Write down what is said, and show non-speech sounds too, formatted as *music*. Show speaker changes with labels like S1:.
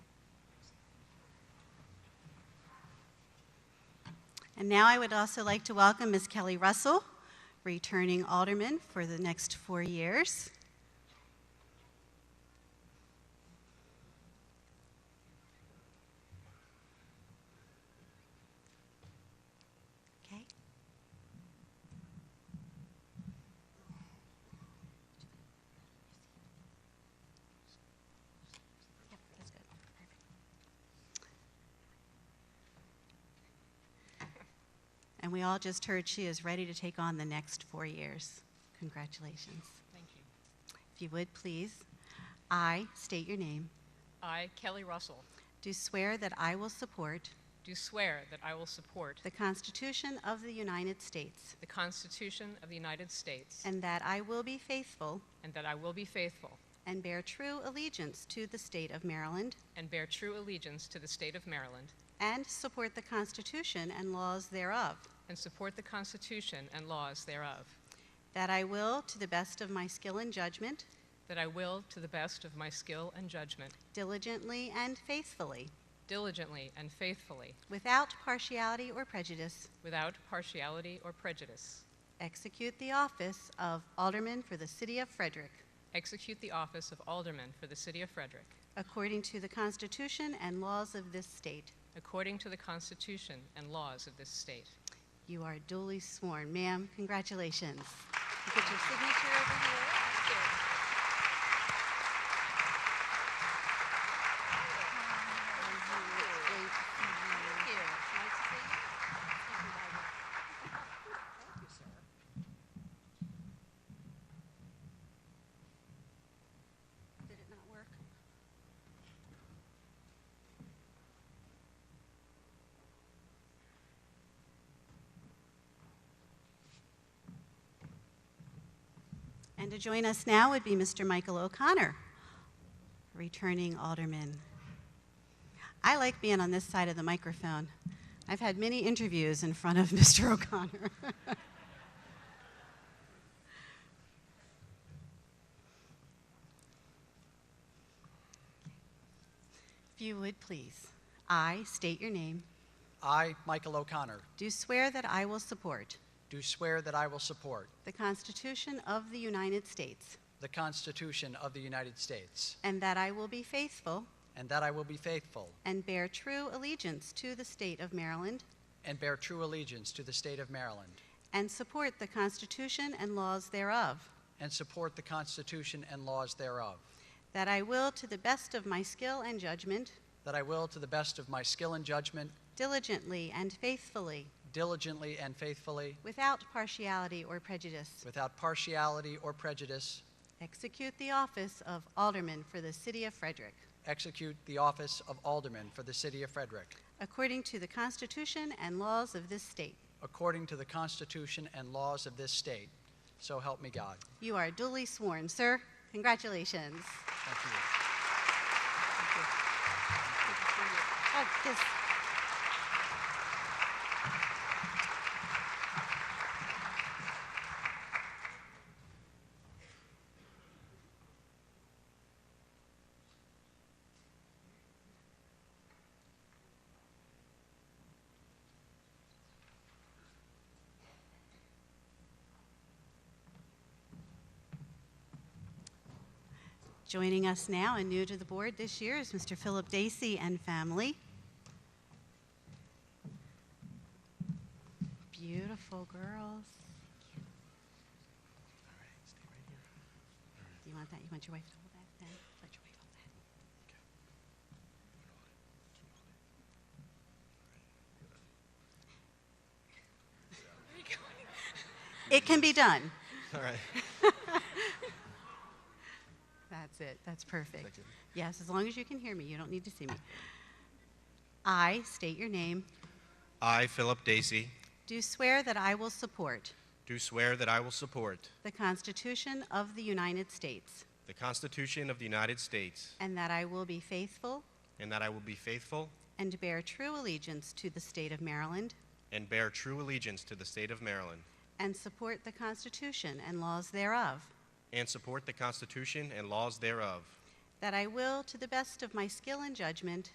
S1: And now I would also like to welcome Ms. Kelly Russell, returning alderman for the next four years. Okay. Yep, that's good. Perfect. And we all just heard she is ready to take on the next four years. Congratulations.
S2: Thank you.
S1: If you would, please, I state your name,
S2: I, Kelly Russell,
S1: do swear that I will support
S2: do swear that I will support
S1: the Constitution of the United States
S2: the Constitution of the United States
S1: and that I will be faithful
S2: and that I will be faithful
S1: and bear true allegiance to the state of Maryland
S2: and bear true allegiance to the state of Maryland
S1: and support the Constitution and laws thereof,
S2: and support the Constitution and laws thereof,
S1: that I will, to the best of my skill and judgment,
S2: that I will, to the best of my skill and judgment,
S1: diligently and faithfully,
S2: diligently and faithfully,
S1: without partiality or prejudice,
S2: without partiality or prejudice,
S1: Execute the office of Alderman for the City of Frederick,
S2: execute the office of Alderman for the city of Frederick
S1: according to the Constitution and laws of this state.
S2: according to the Constitution and laws of this state.
S1: You are duly sworn. Ma'am, congratulations. You Get your signature over here. Did it not work? And to join us now would be Mr. Michael O'Connor, returning alderman. I like being on this side of the microphone. I've had many interviews in front of *laughs* Mr. O'Connor. if you would please, I state your name,
S3: I, Michael O'Connor,
S1: do swear that I will support
S3: do swear that I will support
S1: the Constitution of the United States
S3: the Constitution of the United States,
S1: and that I will be faithful
S3: and that I will be faithful
S1: and bear true allegiance to the state of Maryland
S3: and bear true allegiance to the state of Maryland,
S1: and support the Constitution and laws thereof,
S3: and support the Constitution and laws thereof,
S1: that I will, to the best of my skill and judgment,
S3: that I will, to the best of my skill and judgment,
S1: diligently and faithfully,
S3: diligently and faithfully,
S1: without partiality or prejudice,
S3: without partiality or prejudice,
S1: execute the office of Alderman for the City of Frederick,
S3: execute the office of Alderman for the city of Frederick,
S1: according to the Constitution and laws of this state.
S3: according to the Constitution and laws of this state. So help me God.
S1: You are duly sworn, sir. Congratulations.
S3: Thank you.
S1: Oh, this. Joining us now and new to the board this year is Mr. Philip Dacey and family. Beautiful girls. Do you want that? You want your wife to hold that? Then let your wife hold that. It can be done.
S4: All right.
S1: That's it. That's perfect.
S4: Thank you.
S1: Yes, as long as you can hear me, you don't need to see me. I state your name.
S4: I, Philip Dacey,
S1: Do swear that I will support
S4: do swear that I will support
S1: the Constitution of the United States
S4: the Constitution of the United States
S1: and that I will be faithful
S4: and that I will be faithful
S1: and bear true allegiance to the state of Maryland
S4: and bear true allegiance to the state of Maryland
S1: and support the Constitution and laws thereof.
S4: and support the Constitution and laws thereof,
S1: That I will, to the best of my skill and judgment,